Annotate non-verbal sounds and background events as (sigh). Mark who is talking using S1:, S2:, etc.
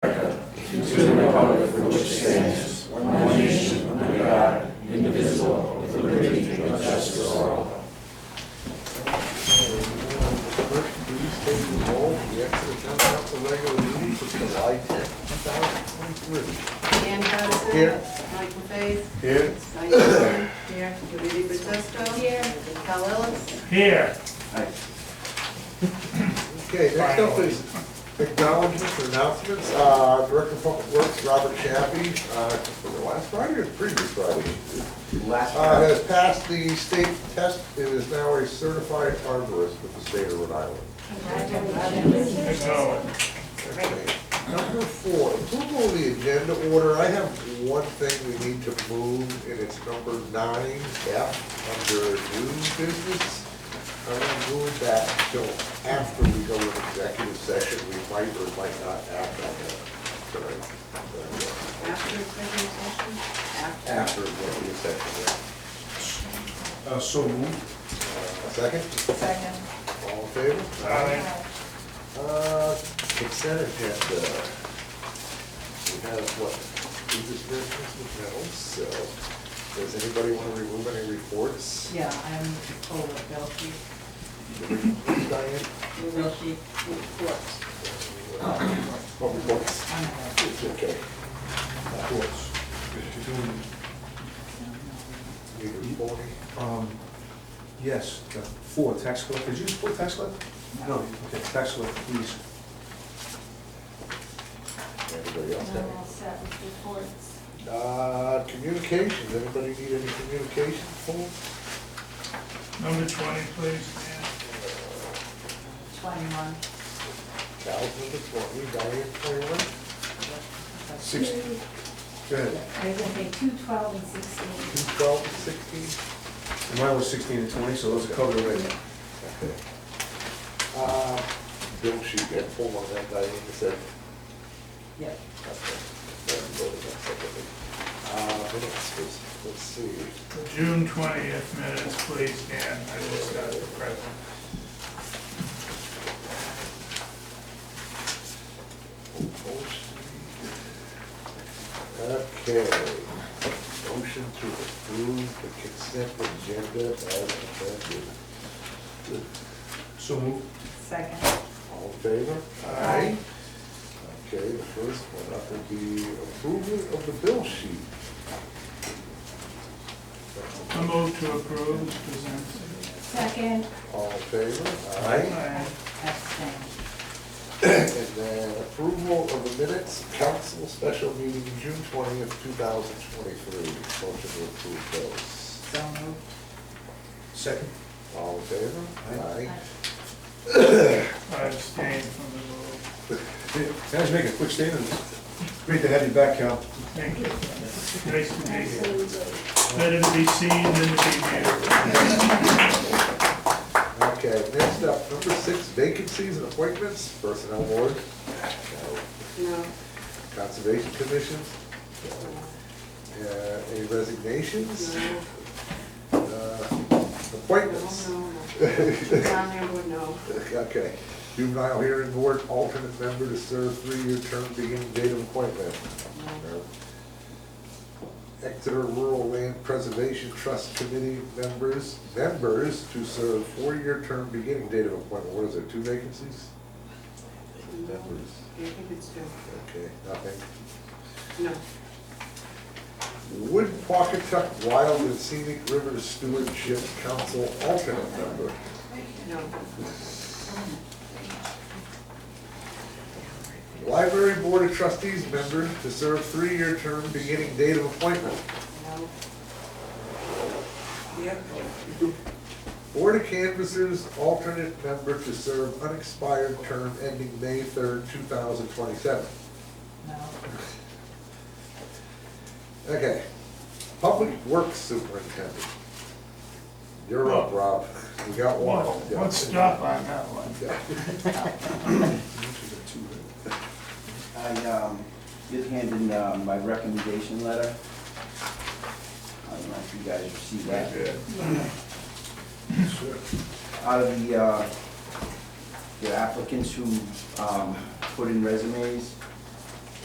S1: First, please take the roll for the Exeter Town Council regular meeting for July 10th, 2023.
S2: Dan Patterson.
S1: Here.
S2: Mike McFaith.
S1: Here.
S2: Diane Jordan. Here. Judy Batista. Here. Cal Ellis.
S3: Here.
S1: Okay, next up is acknowledgements and announcements. Uh, Director of Public Works, Robert Chappie, uh, was it last Friday or the previous Friday?
S4: Last
S1: Uh,
S4: year,
S1: Has passed the state test and is now a certified arborist with the state of Rhode Island.
S3: Good going.
S1: Okay. Number four, approval of the agenda order. I have one thing we need to move, and it's number nine F under new business. I'm gonna move that till after we go into executive session. We might or might not act on that. tonight.
S2: After executive session. After.
S1: uh, After executive session.
S4: uh, so moved.
S1: Uh, Second,
S2: Second.
S1: all in favor?
S3: Aye.
S1: Uh, consent agenda. We have what, we just read this with metals, so, does anybody want to remove any reports?
S2: Yeah, I'm full of guilty.
S1: Diane?
S2: Guilty. Reports.
S1: What reports?
S2: I'm guilty.
S1: It's okay.
S4: Of course. You're doing,
S1: Need a forty?
S4: um, Yes, the four, tax collector, did you support tax collector? No, okay, tax collector, please.
S1: Anybody else
S5: I'm all
S1: have?
S5: set with reports.
S1: any? Uh, communications, anybody need any communication forms?
S3: Number twenty, please, Dan.
S2: Twenty-one.
S1: Cal's number twenty, Diane twenty-one?
S4: Six, go ahead.
S5: There's gonna be two, twelve, and sixteen.
S1: Two twelve and sixteen?
S4: And Mine was sixteen and twenty, so those are covered already.
S1: Okay. Uh, bill sheet, get full on that, Diane, you said.
S2: Yep.
S1: Uh, minutes, let's, let's see.
S3: June twentieth minutes, please, Dan. I just got the present.
S1: Okay, motion to approve the consent agenda as amended.
S4: So moved.
S2: Second.
S1: All in favor?
S2: Aye.
S1: Okay, the first one up will be approval of the bill sheet.
S3: I move to approve as presented.
S5: Second,
S1: All in favor? Aye.
S3: Aye.
S2: Abstain.
S1: And then approval of the minutes, council special meeting, June twentieth, two thousand twenty-three. Motion to approve those.
S2: So moved.
S4: Second.
S1: All in favor?
S4: Aye.
S3: I abstain from the vote.
S4: Hey, Can I just make a quick statement? Great to have you back, Cal.
S3: Thank you. Nice to meet you.
S5: absolutely.
S3: Better to be seen than to be heard.
S1: Okay, next up, number six, vacancies and appointments, personnel board, uh,
S2: No.
S1: conservation commission, uh, any resignations,
S2: No.
S1: uh, appointments.
S2: No, no,
S1: (laughs)
S2: no. Down there, would no.
S1: Okay, juvenile hearing board, alternate member to serve three-year term beginning date of appointment. Exeter Rural Land Preservation Trust Committee members, members to serve four-year term beginning date of appointment. What is it, two vacancies? Members,
S2: I think it's two.
S1: okay, nothing.
S2: No.
S1: Wood Pocketuck Wild and Scenic River Stewardship Council alternate member.
S2: No.
S1: Library Board of Trustees member to serve three-year term beginning date of appointment.
S2: No. Yep.
S1: Board of Canvassers, alternate member to serve unexpired term ending May third, two thousand twenty-seven.
S2: No.
S1: Okay, Public Works Superintendent. You're up, Rob. We got one.
S3: What- What's stop on that one?
S1: Yeah. (laughs)
S6: I um, did hand in uh, my recommendation letter. I don't know if you guys received that.
S4: Sure.
S6: Out of the, uh, the applicants who um, put in resumes,